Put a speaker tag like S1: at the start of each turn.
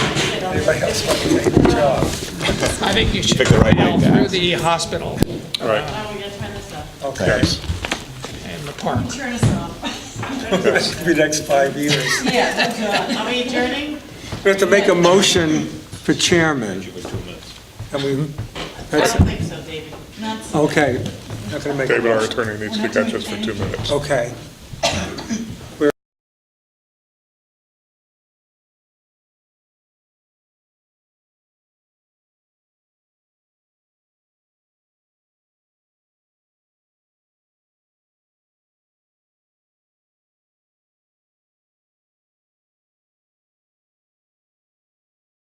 S1: Everybody else fucking made the job.
S2: I think you should
S3: Pick the right
S2: go
S3: way back.
S2: through the hospital
S3: All right,
S4: Oh, we gotta turn this off.
S1: Okay.
S2: and the park.
S4: Turn this off.
S1: This will be the next five years.
S4: Yeah, good job. Are we adjourning?
S1: We have to make a motion for chairman. And we,
S4: I
S1: that's,
S4: don't think so, David. Not so.
S1: okay. Not gonna make a
S5: David, our
S1: motion.
S5: attorney needs to catch us for two minutes.
S1: Okay.